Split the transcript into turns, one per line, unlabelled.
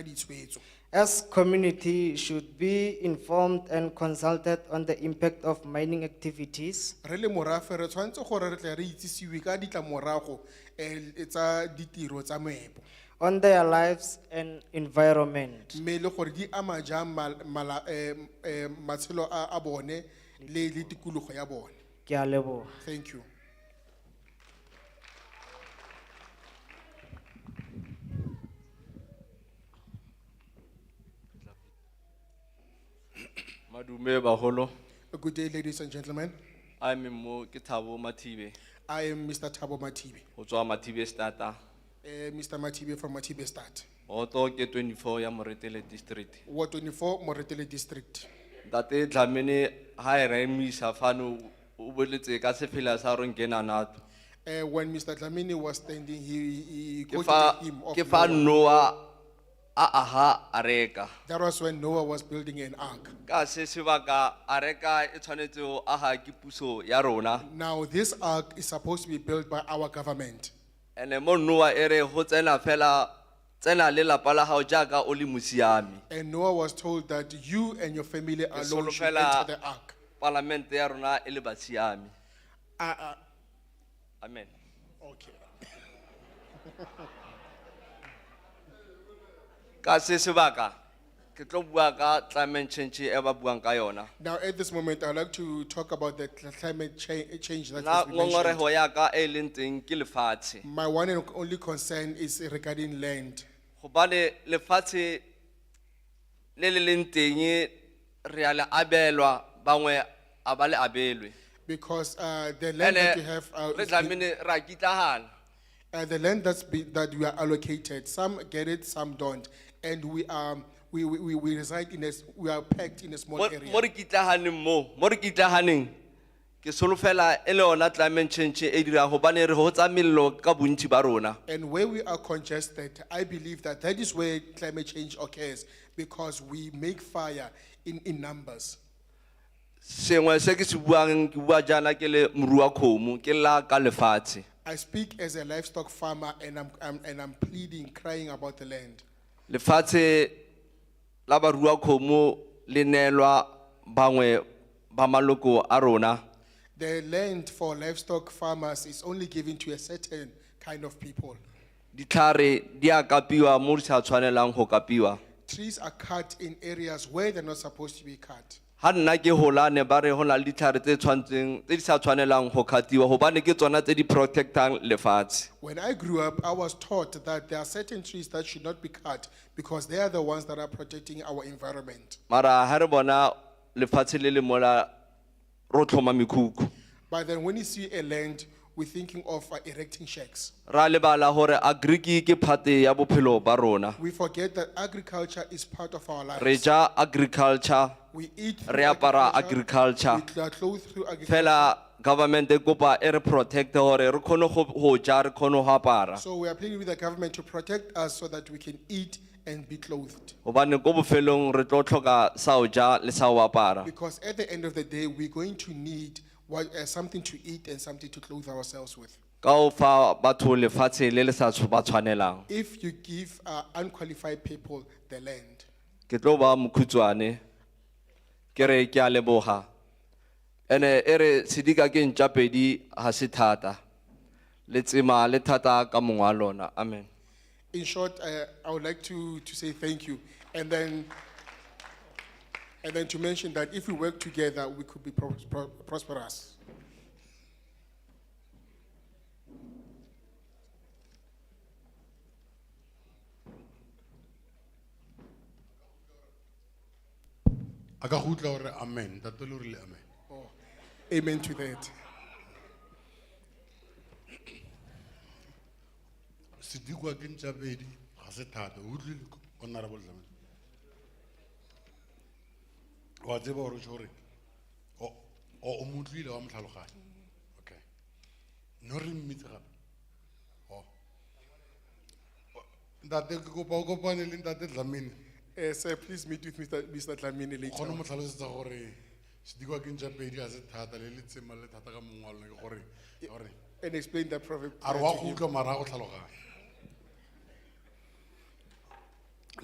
ditshwetso
As community should be informed and consulted on the impact of mining activities.
re le morafe re tshwanetse gore re tle re itsisiwe ka ditlamorago eh, tsa ditiro tsa moepo
on their lives and environment.
mme le gore di ama jang mal- mala- eh, eh, matshelo a a bone le le tikologo ya bone
Ke a leboha.
thank you
Madume baholo,
good day ladies and gentlemen
I am mo ke Thabo Mathibe,
i am mr tabo matibe
ho tswa Mathibe starter.
eh, mr matibe from matibe start
Oto ke twenty-four ya Moretele district.
ward twenty-four moretele district
Ntate Dlamini, ha e re emisa fano, o boletse ka sefela sa rona kena nato.
Eh, when mr dlamini was standing he- he he
Ke
quoted
fa,
the hymn of
ke fa
Noah.
Noah, a aha areka.
that was when noah was building an ark
Ka se sebaka areka e tshwanetse ho aha ke puso ya rona.
now this ark is supposed to be built by our government
Ene mo Noah ere ho tsena fela, tsena le lapa la hao jaaka o le musiami.
And Noah was told that you and your family alone should
solofela-
enter the ark.
Parlamente ya rona e le basiami.
Ah,
Amen.
ah, okay.
ka se sebaka ke tlo bua ka climate change e ba buang ka yona
Now, at this moment, I'd like to talk about the cl- climate cha- change that
na
has been mentioned.
ngongorego ya ka e leng teng ke lefatshe
My one and only concern is regarding land.
gobane lefatshe le le leng teng re a le abelwa bangwe a ba le abelwe
Because uh, the land that you
ande
have, uh,
re
is being-
tlamene ra kitlagana
uh, the land that's been, that we are allocated, some get it, some don't. And we are, we, we, we- we reside in a, s- we are packed in a small
mo
area.
re kitlaganeng mo mo re kitlaganeng ke solofela e le yona climate change e dirang gobane re go tsa melelo ka bontsi ba rona
And where we are congested, I believe that that is where climate change occurs because we make fire in, in numbers.
sengwe se ke se buang ke bua jaana ke le morui wa kgomo ke lla ka lefatshe
I speak as a livestock farmer and I'm, I'm, and I'm pleading, crying about the land.
lefatshe la barui wa kgomo le neelwa bangwe ba maloko a rona
The land for livestock farmers is only given to a certain kind of people.
ditlhare di a kapiwa mo di sa tshwanelang go kapiwa
Trees are cut in areas where they're not supposed to be cut.
ga nna ke golane ba re go na le ditlhare tse tshwantseng tse di sa tshwanelang go kgatiwa gobane ke tsona tse di protectang lefatshe
When I grew up, I was taught that there are certain trees that should not be cut because they are the ones that are protecting our environment.
mara ga re bona lefatshe le le mola ro tlhoma mekhukhu
But then when you see a land, we're thinking of uh, erecting shacks.
ra lebala gore agriki ke phate ya bophelo ba rona
We forget that agriculture is part of our
re
lives.
ja agriculture
We eat through
re apara
We
agriculture
are clothed through agriculture.
fela government e kopa e re protect gore re kgone go- go ja re kgone go apara
So we are pleading with the government to protect us so that we can eat and be clothed.
gobane ko bofelong re tlo tlhoka sa o ja le sa o apara
Because at the end of the day, we're going to need what, uh, something to eat and something to clothe ourselves with.
ka o fa batho lefatshe le le sa tshw- ba tshwanelang
If you give uh, unqualified people the land,
ke tlo ba mokhutswane ke re ke a leboga ene e re sedika ke ntša pedi ga se thata letsema le thata ka mongwe wa lona amen
in short, uh, I would like to, to say thank you. And then, and then to mention that if we work together, we could be pros- pro- prosperous.
aka go utlwa gore amen ntate le rile amen
Amen to that.
sedikwa ke ntša pedi ga se thata o utlwile honorable Dlamini? wa tseba gore o tjho goreng? o o- o mo utlwile wa mo tlhaloganya okay no re mmitse gape O. O- ntate ke kopa o kopane le ntate Dlamini.
Uh, sir, please meet with Mr. Mr. Dlamini
o kgone
later.
ho mo tlhalosetsa gore sedikwa ke ntša pedi ga se thata le letsema le thata ka mongwe wa lona ke gore- gore
And explain that proverb.
a re
uh,
wa
to
go
him.
utlwa mara ha o tlhaloganya